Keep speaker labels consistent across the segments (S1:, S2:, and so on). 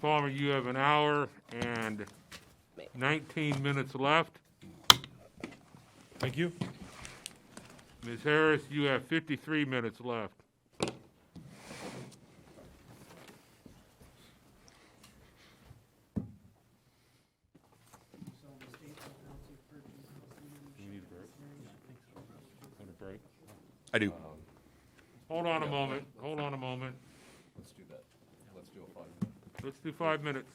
S1: Palmer, you have an hour and 19 minutes left.
S2: Thank you.
S1: Ms. Harris, you have 53 minutes left.
S3: I do.
S1: Hold on a moment, hold on a moment.
S4: Let's do that. Let's do a five.
S1: Let's do five minutes.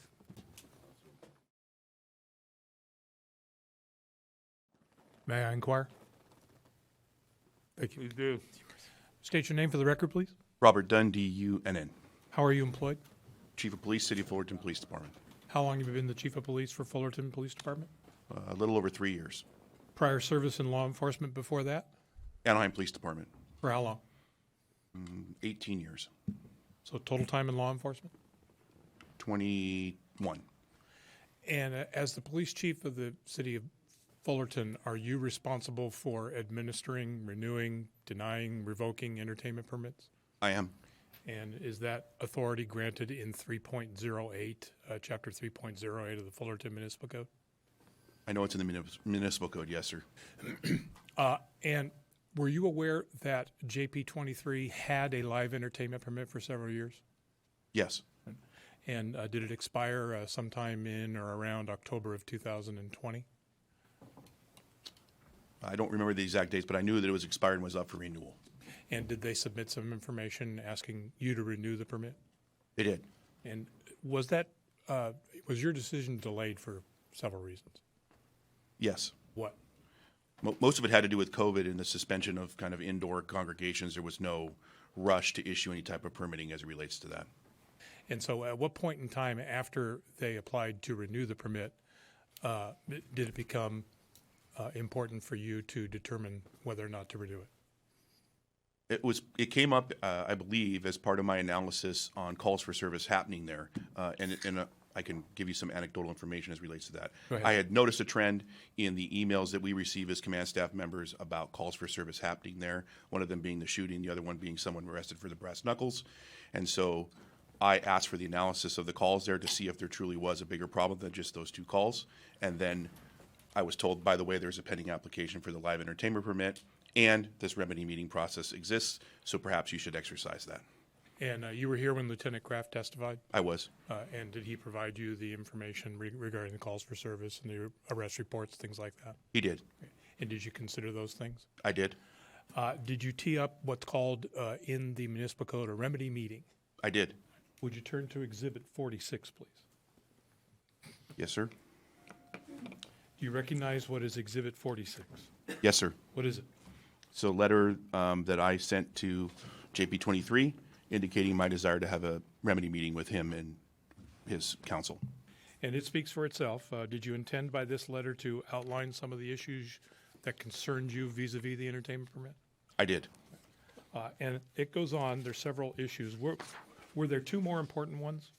S2: May I inquire?
S1: Please do.
S2: State your name for the record, please.
S3: Robert Dunn, D-U-N-N,
S2: How are you employed?
S3: Chief of Police, City of Fullerton Police Department.
S2: How long have you been the Chief of Police for Fullerton Police Department?
S3: Uh, A little over three years.
S2: Prior service in law enforcement before that?
S3: Anaheim Police Department,
S2: For how long?
S3: 18 years,
S2: So total time in law enforcement?
S3: 21.
S2: And uh, as the police chief of the city of Fullerton, are you responsible for administering, renewing, denying, revoking entertainment permits?
S3: I am.
S2: And is that authority granted in 3.08, uh, Chapter 3.08 of the Fullerton Municipal Code?
S3: I know it's in the munis- municipal code, yes, sir.
S2: Uh, and were you aware that JP 23 had a live entertainment permit for several years?
S3: Yes,
S2: And uh, did it expire uh, sometime in or around October of 2020?
S3: I don't remember the exact dates, but I knew that it was expired and was up for renewal.
S2: And did they submit some information asking you to renew the permit?
S3: They did.
S2: And was that, uh, was your decision delayed for several reasons?
S3: Yes.
S2: What?
S3: Mo- Most of it had to do with COVID and the suspension of kind of indoor congregations. There was no rush to issue any type of permitting as it relates to that.
S2: And so at what point in time after they applied to renew the permit, uh, did it become uh, important for you to determine whether or not to renew it?
S3: It was, it came up, uh, I believe, as part of my analysis on calls for service happening there. Uh, and, and uh, I can give you some anecdotal information as relates to that.
S2: Go ahead.
S3: I had noticed a trend in the emails that we receive as command staff members about calls for service happening there. One of them being the shooting, the other one being someone arrested for the brass knuckles. And so I asked for the analysis of the calls there to see if there truly was a bigger problem than just those two calls. And then I was told, by the way, there's a pending application for the live entertainment permit, and this remedy meeting process exists, so perhaps you should exercise that.
S2: And uh, you were here when Lieutenant Kraft testified,
S3: I was.
S2: uh, and did he provide you the information re- regarding the calls for service and the arrest reports, things like that?
S3: He did.
S2: And did you consider those things?
S3: I did.
S2: Uh, Did you tee up what's called uh, in the municipal code a remedy meeting?
S3: I did.
S2: Would you turn to Exhibit 46, please?
S3: Yes, sir.
S2: Do you recognize what is Exhibit 46?
S3: Yes, sir.
S2: What is it?
S3: So letter um, that I sent to JP twenty-three indicating my desire to have a remedy meeting with him and his counsel.
S2: And it speaks for itself. Uh, Did you intend by this letter to outline some of the issues that concerned you vis-à-vis the entertainment permit?
S3: I did.
S2: Uh, And it goes on, there's several issues. Were, were there two more important ones?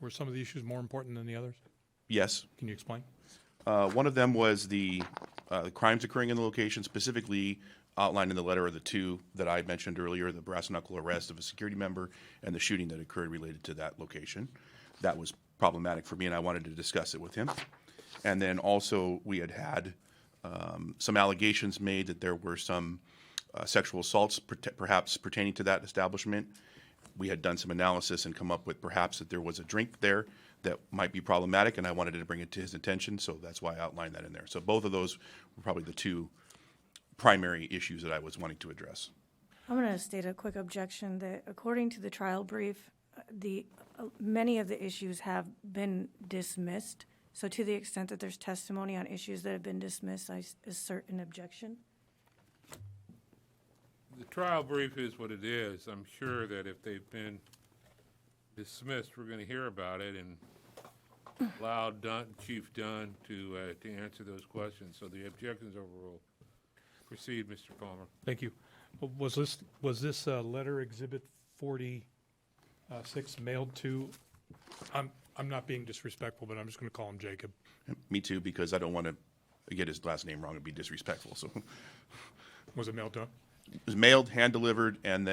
S2: Were some of the issues more important than the others?
S3: Yes.
S2: Can you explain?
S3: Uh, One of them was the uh, the crimes occurring in the location, specifically outlined in the letter of the two that I mentioned earlier, the brass knuckle arrest of a security member and the shooting that occurred related to that location. That was problematic for me, and I wanted to discuss it with him. And then also, we had had um, some allegations made that there were some uh, sexual assaults perte- perhaps pertaining to that establishment. We had done some analysis and come up with perhaps that there was a drink there that might be problematic, and I wanted to bring it to his attention, so that's why I outlined that in there. So both of those were probably the two primary issues that I was wanting to address.
S5: I'm going to state a quick objection that according to the trial brief, uh, the, uh, many of the issues have been dismissed. So to the extent that there's testimony on issues that have been dismissed, I s- assert an objection.
S1: The trial brief is what it is. I'm sure that if they've been dismissed, we're gonna hear about it and allow Dunn, Chief Dunn to, uh, to answer those questions. So the objection's overruled. Proceed, Mr. Palmer.
S2: Thank you. W- Was this, was this uh, letter Exhibit 46 mailed to, I'm, I'm not being disrespectful, but I'm just going to call him Jacob.
S3: Me too, because I don't want to get his last name wrong and be disrespectful, so. It
S2: Was it mailed to him?
S3: was mailed, hand-delivered, and then